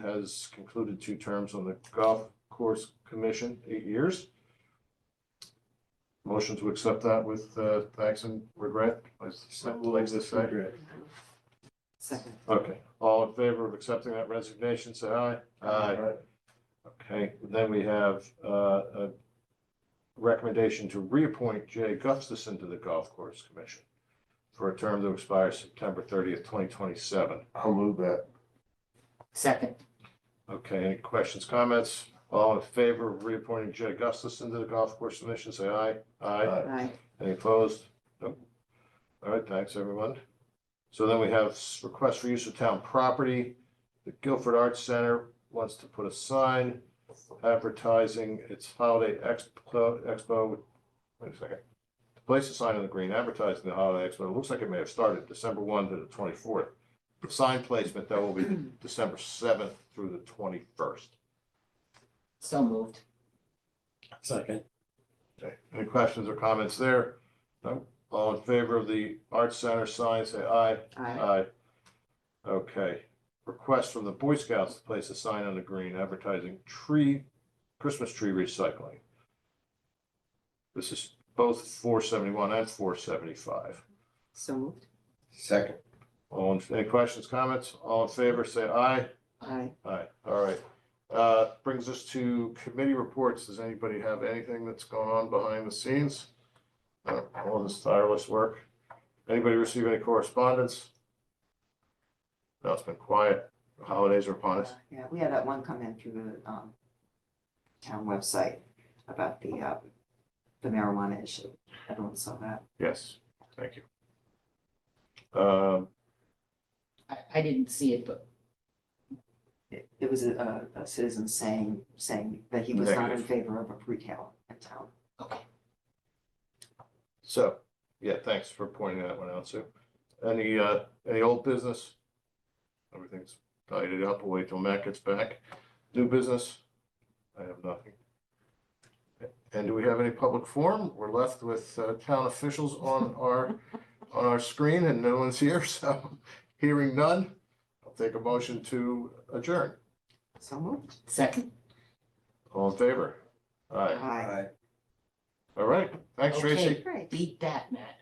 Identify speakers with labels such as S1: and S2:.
S1: has concluded two terms on the Golf Course Commission, eight years. Motion to accept that with uh, thanks and regret, like like this say.
S2: Second.
S1: Okay, all in favor of accepting that resignation, say aye. Okay, then we have uh, a recommendation to reappoint Jay Gustafson to the Golf Course Commission for a term to expire September thirtieth, twenty twenty-seven.
S3: I'll move that.
S2: Second.
S1: Okay, any questions, comments? All in favor of reappointing Jay Gustafson to the Golf Course Commission, say aye. Aye.
S2: Aye.
S1: Any opposed? Nope. All right, thanks, everyone. So then we have s- request for use of town property. The Guilford Arts Center wants to put a sign advertising its holiday expo, expo. Wait a second. To Place a sign on the green advertising the holiday expo. It looks like it may have started December one to the twenty-fourth. Sign placement, that will be December seventh through the twenty-first.
S2: So moved.
S4: Second.
S1: Okay, any questions or comments there? No, all in favor of the Arts Center sign, say aye.
S2: Aye.
S1: Aye. Okay, request from the Boy Scouts to place a sign on the green advertising tree, Christmas tree recycling. This is both four seventy-one and four seventy-five.
S2: So moved.
S3: Second.
S1: All, in- any questions, comments? All in favor, say aye.
S2: Aye.
S1: Aye, all right. Uh, brings us to committee reports. Does anybody have anything that's going on behind the scenes? Uh, All this tireless work. Anybody receive any correspondence? No, it's been quiet. The Holidays are upon us.
S2: Uh, Yeah, we had that one come in through the, um, town website about the, uh, the marijuana issue. Everyone saw that.
S1: Yes, thank you. Um,
S5: I, I didn't see it, but
S2: It, it was a, a citizen saying, saying that he was not in
S1: Negative.
S2: favor of a retail in town.
S1: so, yeah, thanks for pointing that one out, Sue. Any, uh, any old business? Everything's tidied up. We'll wait till Matt gets back. New business? I have nothing. And do we have any public forum? We're left with uh, town officials on our, on our screen and no one's here, so hearing none. I'll take a motion to adjourn.
S2: So moved.
S5: second.
S1: All in favor? Aye.
S2: Aye.
S1: All right. Thanks, Tracy.
S5: Okay, Beat that, Matt.